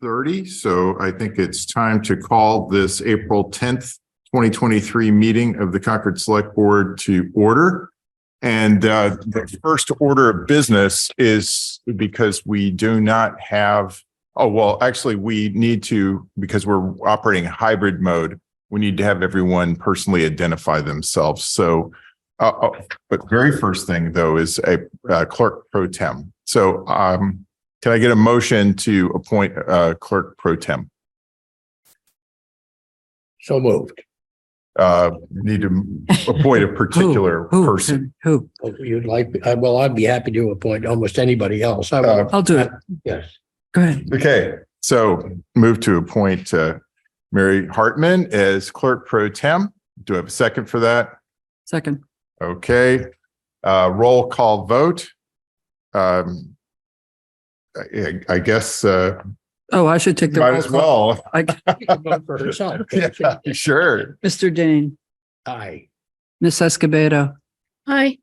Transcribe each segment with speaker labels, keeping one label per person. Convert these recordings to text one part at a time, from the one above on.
Speaker 1: thirty, so I think it's time to call this April tenth, twenty twenty-three meeting of the Concord Select Board to order. And uh, the first order of business is because we do not have, oh, well, actually, we need to, because we're operating hybrid mode, we need to have everyone personally identify themselves. So uh, oh, but very first thing though is a uh, clerk pro tem. So um, can I get a motion to appoint uh, clerk pro tem?
Speaker 2: So moved.
Speaker 1: Uh, Need to appoint a particular
Speaker 3: Who?
Speaker 1: person.
Speaker 3: Who?
Speaker 2: Oh, You'd like, I- well, I'd be happy to appoint almost anybody else. I
Speaker 1: Uh,
Speaker 2: would,
Speaker 3: I'll do it.
Speaker 2: yes.
Speaker 3: Go ahead.
Speaker 1: Okay, so move to appoint uh, Mary Hartman as clerk pro tem. Do I have a second for that?
Speaker 3: Second.
Speaker 1: Okay, uh, roll call vote. Um, I I guess uh,
Speaker 3: Oh, I should take the.
Speaker 1: might
Speaker 3: roll
Speaker 1: as
Speaker 3: call.
Speaker 1: well.
Speaker 3: I-
Speaker 2: She can vote For herself.
Speaker 1: Yeah, Sure.
Speaker 3: Mr. Dane,
Speaker 2: Aye.
Speaker 3: Miss Escobedo,
Speaker 4: Hi.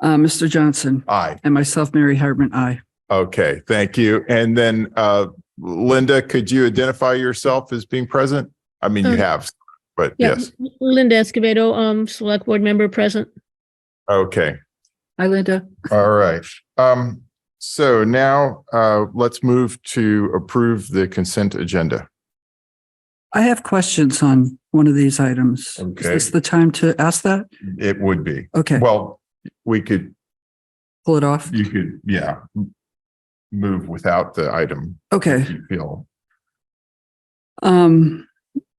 Speaker 3: uh, Mr. Johnson,
Speaker 1: Aye.
Speaker 3: and myself, Mary Hartman, I.
Speaker 1: Okay, thank you. And then uh, Linda, could you identify yourself as being present? I mean, you
Speaker 4: Um,
Speaker 1: have, but
Speaker 4: Yeah,
Speaker 1: yes.
Speaker 4: L- Linda Escobedo, um, select board member present.
Speaker 1: Okay,
Speaker 3: Hi, Linda.
Speaker 1: all right. Um, So now uh, let's move to approve the consent agenda.
Speaker 3: I have questions on one of these items. Is
Speaker 1: Okay.
Speaker 3: this the time to ask that?
Speaker 1: It would be.
Speaker 3: Okay,
Speaker 1: Well, we could,
Speaker 3: pull it off.
Speaker 1: you could, yeah, move without the item.
Speaker 3: Okay.
Speaker 1: if You feel,
Speaker 3: Um,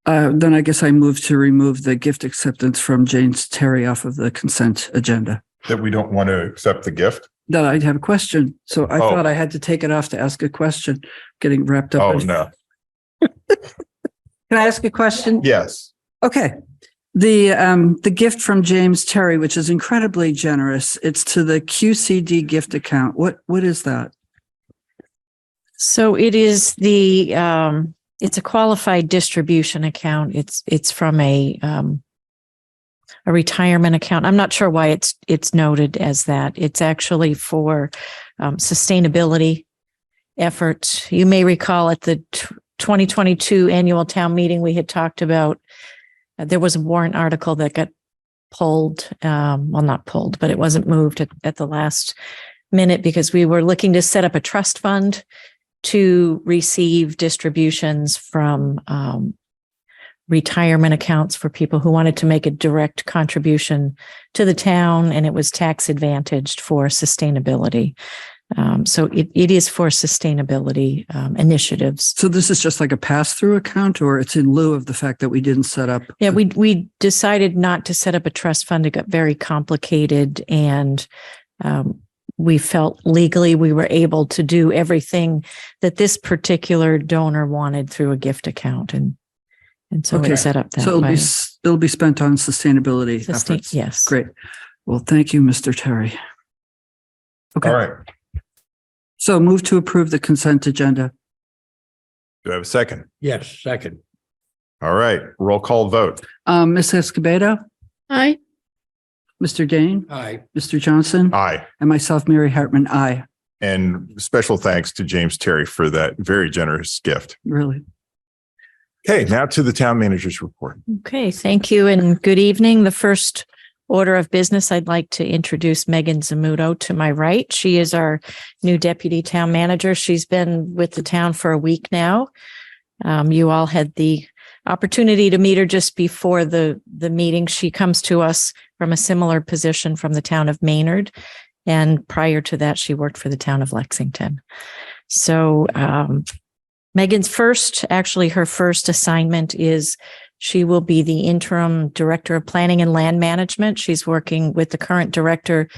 Speaker 3: uh, then I guess I move to remove the gift acceptance from Jane's Terry off of the consent agenda.
Speaker 1: that we don't want to accept the gift?
Speaker 3: That I'd have a question. So I
Speaker 1: Oh.
Speaker 3: thought I had to take it off to ask a question, getting wrapped up.
Speaker 1: Oh,
Speaker 3: in-
Speaker 1: no.
Speaker 3: Can I ask a question?
Speaker 1: Yes.
Speaker 3: Okay. The um the gift from James Terry, which is incredibly generous, it's to the QCD gift account. What what is that?
Speaker 5: So it is the, um, it's a qualified distribution account. It's, it's from a, um, a retirement account. I'm not sure why it's, it's noted as that. It's actually for, um, sustainability efforts. You may recall at the tw- 2022 annual town meeting, we had talked about, uh, there was a warrant article that got pulled, um, well, not pulled, but it wasn't moved at, at the last minute because we were looking to set up a trust fund to receive distributions from um, retirement accounts for people who wanted to make a direct contribution to the town, and it was tax advantaged for sustainability. Um, so it, it is for sustainability um, initiatives.
Speaker 3: So this is just like a pass through account, or it's in lieu of the fact that we didn't set up.
Speaker 5: Yeah, we we decided not to set up a trust fund. It got very complicated, and um, we felt legally we were able to do everything that this particular donor wanted through a gift account, and and so
Speaker 3: Okay.
Speaker 5: we set up that.
Speaker 3: So it'll
Speaker 5: way.
Speaker 3: be s- it'll be spent on sustainability
Speaker 5: Sustain-
Speaker 3: efforts.
Speaker 5: yes,
Speaker 3: Great. Well, thank you, Mr. Terry.
Speaker 1: All
Speaker 3: Okay,
Speaker 1: right.
Speaker 3: so move to approve the consent agenda.
Speaker 1: Do I have a second?
Speaker 2: Yes, second.
Speaker 1: All right, roll call vote.
Speaker 3: Um, Ms. Escobedo,
Speaker 4: Hi.
Speaker 3: Mr. Dane,
Speaker 2: Aye.
Speaker 3: Mr. Johnson,
Speaker 1: Aye.
Speaker 3: and myself, Mary Hartman, I
Speaker 1: And special thanks to James Terry for that very generous gift.
Speaker 3: really.
Speaker 1: Okay, now to the town manager's report.
Speaker 5: Okay, thank you and good evening. The first order of business, I'd like to introduce Megan Zamuto to my right. She is our new deputy town manager. She's been with the town for a week now. Um, you all had the opportunity to meet her just before the, the meeting. She comes to us from a similar position from the town of Maynard. And prior to that, she worked for the town of Lexington. So, um, Megan's first, actually her first assignment is she will be the interim director of planning and land management. She's working with the current director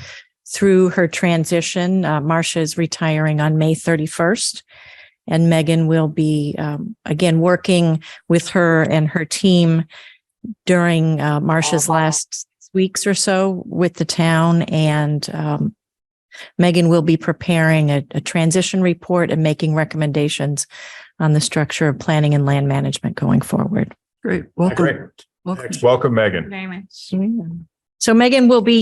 Speaker 5: through her transition. Uh, Marcia is retiring on May 31st. And Megan will be, um, again, working with her and her team during uh, Marcia's last weeks or so with the town. And um, Megan will be preparing a, a transition report and making recommendations on the structure of planning and land management going forward.
Speaker 3: Great. Welcome.
Speaker 1: Great.
Speaker 3: Welcome.
Speaker 1: Welcome, Megan.
Speaker 4: Very much.
Speaker 5: So Megan will be